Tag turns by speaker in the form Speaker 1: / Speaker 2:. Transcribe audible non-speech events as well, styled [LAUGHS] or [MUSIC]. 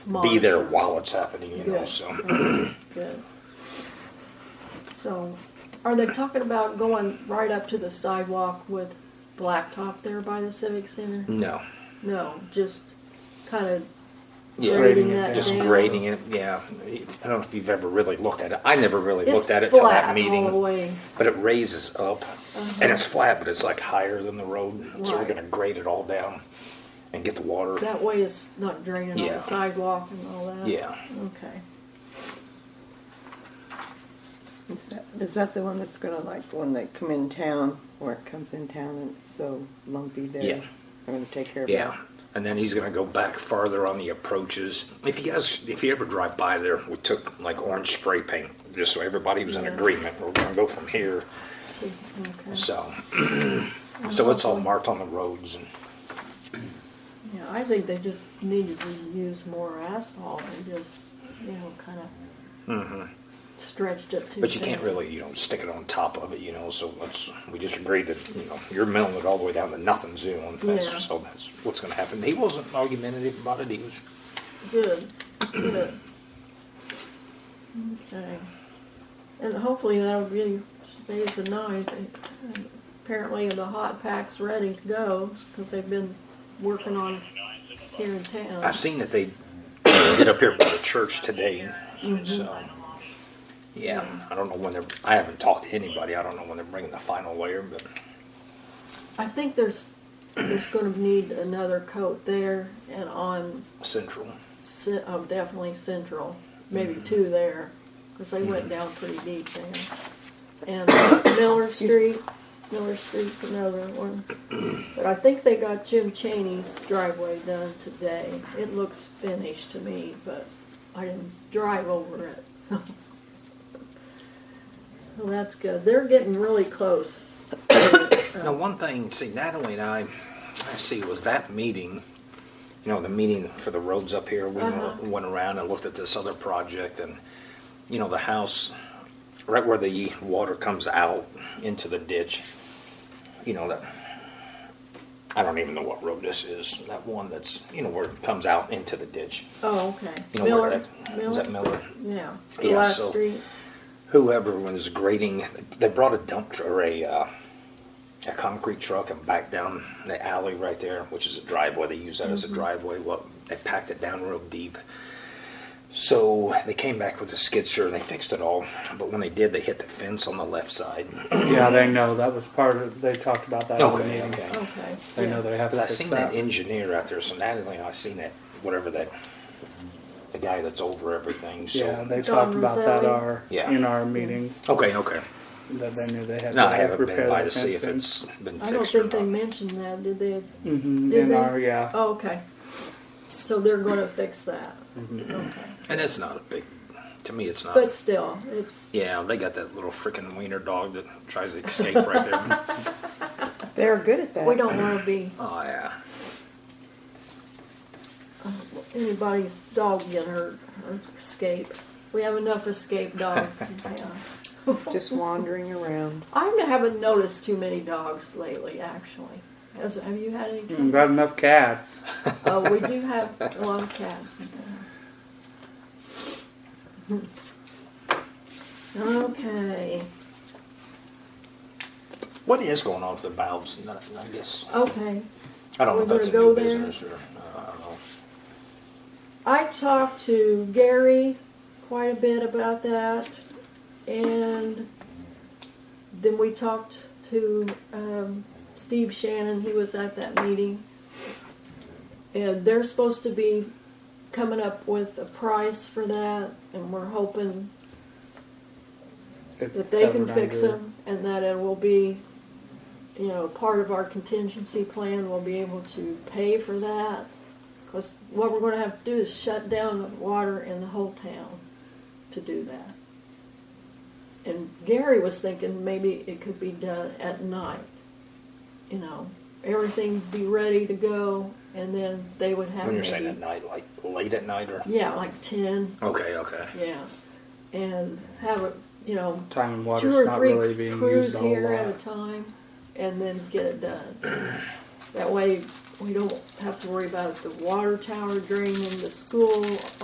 Speaker 1: be there while it's happening, you know,
Speaker 2: Yeah.
Speaker 1: so.
Speaker 2: Yeah. So, are they talking about going right up to the sidewalk with blacktop there by the civic center?
Speaker 1: No,
Speaker 2: No, just kind of
Speaker 1: yeah,
Speaker 2: grading
Speaker 3: Grading it
Speaker 2: that
Speaker 1: just
Speaker 2: down.
Speaker 1: grading it, yeah. I don't know if you've ever really looked at it. I never really
Speaker 2: It's
Speaker 1: looked at it till
Speaker 2: flat
Speaker 1: that
Speaker 2: all the
Speaker 1: meeting.
Speaker 2: way. Uh-huh.
Speaker 1: But it raises up and it's flat, but it's like higher than the road. So we're
Speaker 2: Right.
Speaker 1: gonna grade it all down and get the water.
Speaker 2: That way it's not draining on
Speaker 1: Yeah.
Speaker 2: the sidewalk and all that.
Speaker 1: Yeah,
Speaker 2: Okay.
Speaker 4: Is that, is that the one that's gonna like, when they come in town, or it comes in town and it's so lumpy there?
Speaker 1: Yeah.
Speaker 4: I'm gonna take care of it.
Speaker 1: yeah. And then he's gonna go back farther on the approaches. If you guys, if you ever drive by there, we took like orange spray paint, just so everybody was in
Speaker 2: Yeah.
Speaker 1: agreement. We're gonna go from here.
Speaker 2: Okay.
Speaker 1: So, [CLEARS THROAT] so it's all marked on the roads and,
Speaker 2: Yeah, I think they just needed to use more asphalt and just, you know, kind of stretched it too.
Speaker 1: but you can't
Speaker 2: thin.
Speaker 1: really, you know, stick it on top of it, you know, so let's, we just agreed that, you know, you're milling it all the way down to nothing zone. That's,
Speaker 2: Yeah.
Speaker 1: so that's what's gonna happen. He wasn't argumentative about it, he was,
Speaker 2: Good, good. Okay. And hopefully that'll really stays the night. And Apparently the hot pack's ready to go, because they've been working on it here in town.
Speaker 1: I've seen that they did up here by the church today, so. Yeah, I don't know when they're, I haven't talked to anybody. I don't know when they're bringing the final layer, but,
Speaker 2: I think there's, there's gonna need another coat there and on
Speaker 1: central.
Speaker 2: Cen- oh, definitely Central, maybe
Speaker 1: Mm-hmm.
Speaker 2: two there, because they went down pretty deep there. And uh,
Speaker 1: [COUGHS]
Speaker 2: Miller Street, Miller Street's another one. But I think they got Jim Cheney's driveway done today. It looks finished to me, but I didn't drive over it. [LAUGHS] So that's good. They're getting really close. [COUGHS] Oh,
Speaker 1: Now, one thing, see, Natalie and I, I see, was that meeting, you know, the meeting for the roads up here, we
Speaker 2: Uh-huh.
Speaker 1: went- went around and looked at this other project and, you know, the house, right where the water comes out into the ditch, you know, that, I don't even know what road this is, that one that's, you know, where it comes out into the ditch.
Speaker 2: Oh, okay.
Speaker 1: [COUGHS] You know, where
Speaker 2: Miller,
Speaker 1: that, is that
Speaker 2: Miller,
Speaker 1: Miller?
Speaker 2: yeah.
Speaker 1: Yeah,
Speaker 2: Last
Speaker 1: so-
Speaker 2: Street,
Speaker 1: whoever was grading, they brought a dump tr- or a uh, a concrete truck and backed down the alley right there, which is a driveway. They use that as
Speaker 3: Mm-hmm.
Speaker 1: a driveway. Well, they packed it down real deep. So they came back with the skid steer and they fixed it all. But when they did, they hit the fence on the left side.
Speaker 3: Yeah, they know, that was part of, they talked about that in the
Speaker 1: okay,
Speaker 3: meeting.
Speaker 1: okay.
Speaker 2: okay.
Speaker 3: They know they have
Speaker 1: Because
Speaker 3: to
Speaker 1: I
Speaker 3: fix
Speaker 1: seen that
Speaker 3: that.
Speaker 1: engineer out there. So Natalie and I seen that whatever that the guy that's over everything. So
Speaker 3: Yeah, they
Speaker 2: Don
Speaker 3: talked about that
Speaker 2: Roselli.
Speaker 3: our,
Speaker 1: Yeah.
Speaker 3: in our meeting,
Speaker 1: okay, okay.
Speaker 3: that they knew they had
Speaker 1: No, I
Speaker 3: to
Speaker 1: haven't been
Speaker 3: repair
Speaker 1: by
Speaker 3: that
Speaker 1: to see if
Speaker 3: fencing.
Speaker 1: it's been
Speaker 2: I don't
Speaker 1: fixed
Speaker 2: think
Speaker 1: or
Speaker 2: they
Speaker 1: not.
Speaker 2: mentioned that, did they?
Speaker 3: Mhm,
Speaker 2: Did
Speaker 3: In
Speaker 2: they?
Speaker 3: our, yeah.
Speaker 2: Oh, okay. So they're gonna fix that.
Speaker 1: Mm-hmm.
Speaker 2: Okay.
Speaker 1: And it's not a big, to me, it's not.
Speaker 2: But still, it's,
Speaker 1: yeah, they got that little freaking wiener dog that tries to escape
Speaker 2: [LAUGHS]
Speaker 1: right there.
Speaker 4: They're good at that.
Speaker 2: we don't wanna be
Speaker 1: Oh, yeah.
Speaker 2: anybody's dog get hurt or escape. We have enough escape
Speaker 1: [LAUGHS]
Speaker 2: dogs. Yeah.
Speaker 4: Just wandering around.
Speaker 2: I haven't noticed too many dogs lately, actually. Has, have you had any?
Speaker 3: Mm, Got enough cats.
Speaker 2: Oh, we do have a lot of cats in there.
Speaker 1: [LAUGHS]
Speaker 2: Okay,
Speaker 1: What is going on with the valves? Not- I guess.
Speaker 2: okay.
Speaker 1: I don't know
Speaker 2: We're
Speaker 1: if that's a
Speaker 2: gonna
Speaker 1: new
Speaker 2: go there?
Speaker 1: business or. Uh, I don't know.
Speaker 2: I talked to Gary quite a bit about that, and then we talked to um, Steve Shannon. He was at that meeting, and they're supposed to be coming up with a price for that, and we're hoping
Speaker 3: It's
Speaker 2: that they can
Speaker 3: covered
Speaker 2: fix
Speaker 3: under-
Speaker 2: them and that it will be, you know, part of our contingency plan, we'll be able to pay for that. Cause what we're gonna have to do is shut down the water in the whole town to do that. And Gary was thinking maybe it could be done at night, you know, everything be ready to go and then they would have
Speaker 1: When
Speaker 2: maybe.
Speaker 1: you're saying at night, like late at night or.
Speaker 2: Yeah, like ten,
Speaker 1: Okay, okay.
Speaker 2: yeah, and have it, you know,
Speaker 3: Time and
Speaker 2: two
Speaker 3: water's
Speaker 2: or
Speaker 3: not
Speaker 2: three
Speaker 3: really being
Speaker 2: crews
Speaker 3: used a whole
Speaker 2: here at a
Speaker 3: lot.
Speaker 2: time, and then get it done. That way, we don't have to worry about the water tower draining the school